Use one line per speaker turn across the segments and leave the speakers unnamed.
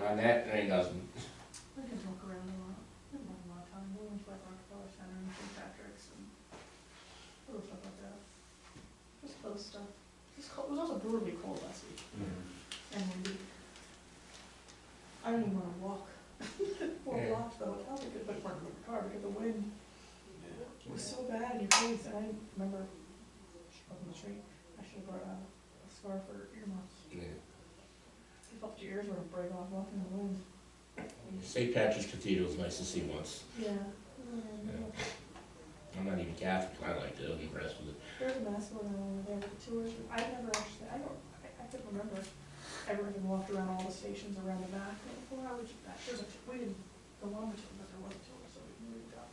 on that, and he doesn't.
We can walk around a lot, we don't have a lot of time, we'll went to like Rockefeller Center and St. Patrick's and little stuff like that. Just close stuff. It's cold, it was also brutally cold last week
Mm-hmm.
and windy. I don't even wanna walk. Four
Yeah.
blocks to the hotel, we could put front of the car, because the wind was so bad in your face, and I remember up in the tree, I should've brought a a scarf or earmuffs.
Yeah.
I felt your ears were gonna break off walking in the wind.
St. Patrick's Cathedral is nice to see once.
Yeah. Mm-hmm.
Yeah. Mm-hmm. I'm not even Catholic, I like to, I'm impressed with it.
There's a mass going on over there with the tours. I never actually, I don't, I, I couldn't remember ever having walked around all the stations around the back. Like, Well, I would, that, there's a, we didn't go on the tour, but there was a tour, so we moved up.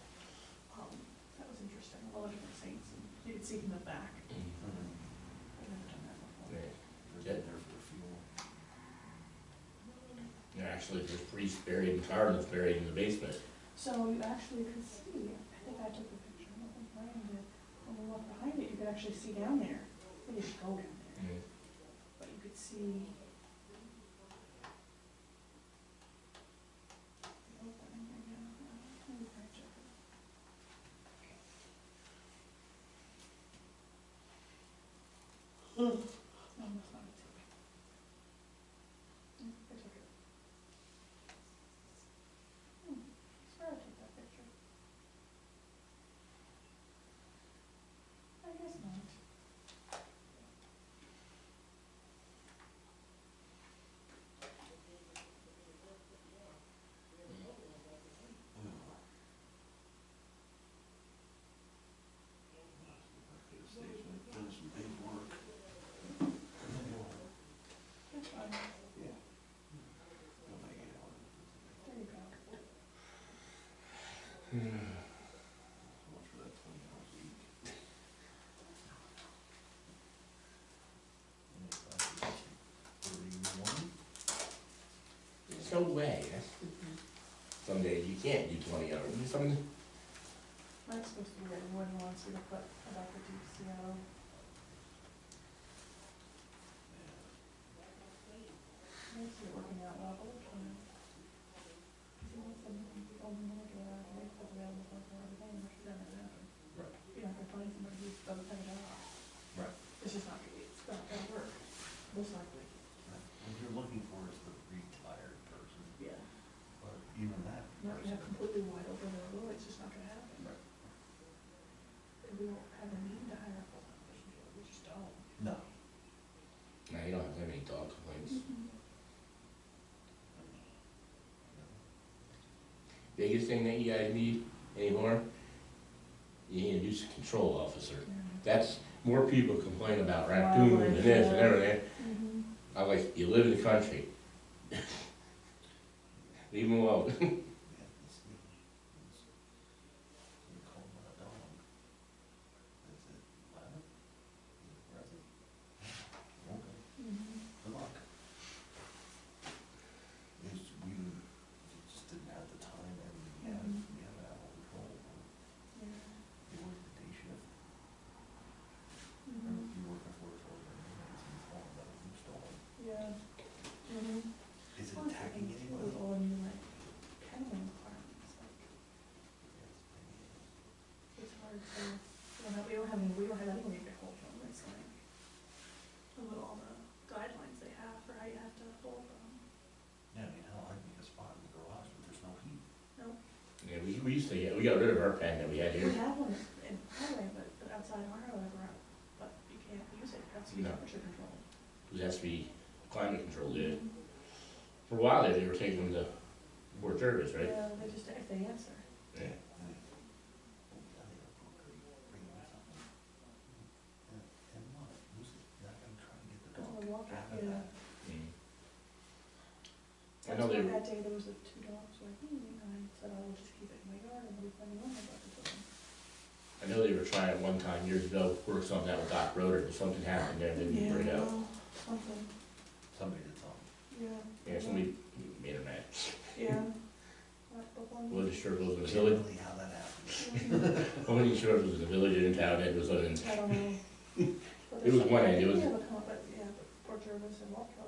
Um, that was interesting, all the different saints, and you could see from the back.
Mm-hmm.
I've never done that before.
Yeah, Actually, there's priests buried and cardinals buried in the basement.
So you actually could see, I think I took a picture, I don't think Brian did. When we walked behind it, you could actually see down there. We didn't go down there. But you could see. the opening again. Let me try to check it. No, that's not it. Mm, I took it. Hmm, I swear I took that picture. I guess not. That's fine. There you go.
There's no way, that's, some days you can't do twenty hours, some,
Mine's supposed to be that one wants you to put about the deep snow. Mine's not working out well, but it can. If you want something, you can only look at it, wait for the available for everything, which is never gonna happen.
Right.
You're not gonna find somebody who doesn't have it all.
Right.
It's just not, gonna be- it's not gonna work, most likely.
What you're looking for is the retired person,
Yeah.
or even that
Not gonna
person.
have completely wide open the door, it's just not gonna happen.
Right.
And we don't have a need to hire a full-time person, we just don't.
No.
no, you don't have to have any dog complaints. Biggest thing that you guys need anymore, you need a new control officer.
Mm-hmm.
That's, more people complain about raccoons and this and everything,
Mm-hmm.
I was like, you live in the country. Leave them alone.
Yeah, it's me. It's- You call my dog. Is it loud? Is it present? Okay,
Mhm.
good luck. It's, we just didn't have the time and we had,
Mhm.
we had out of control.
Mm-hmm.
You work the day shift, or
Mhm.
you work a four hour, and it's falling down, it's stolen.
Yeah. Mhm.
Is it
Well, it's
attacking
like
anyone?
With all new like kennel requirements, like it's hard to, we don't have, we don't have, any- we don't have anyone to hold them, it's like. And with all the guidelines they have for how you have to hold them.
Yeah, I mean, hell, I'd make a spot in the garage, but there's no heat.
Yeah, we, we used to, get- we got rid of our pen that we had
We
here.
have one in highway, but but outside our highway, we're out, but you can't use it, that's
No.
temperature control.
It has to be climate controlled, yeah. For a while there, they were taking them to Fort Jervis, right?
Yeah, they just, if they answer.
Yeah.
And it- oh, yeah, they were broken, bring them something. And, and what, who's not gonna try and get the
Go
dog
on the walk,
out of
yeah.
that?
Mm. I
That's
know
why
they,
that day there was the two dogs, like, hmm, and I said, I will just keep it in my yard and leave them alone, I got the dog.
I know they were trying one time years ago, work something out with Doc Roder, and something happened there, they didn't bring it out.
well, Something,
Somebody that's on,
yeah.
Yeah, somebody made a mad.
Yeah. Not the one.
Wasn't sure if it was in the
can't
village,
really how that happened.
Mhm.
wasn't sure if it was in the village or in town, it was in,
I don't know. But
It was
there's
one
something-
end, it was-
Yeah, but, come up, but, yeah, but Port Jervis and Walker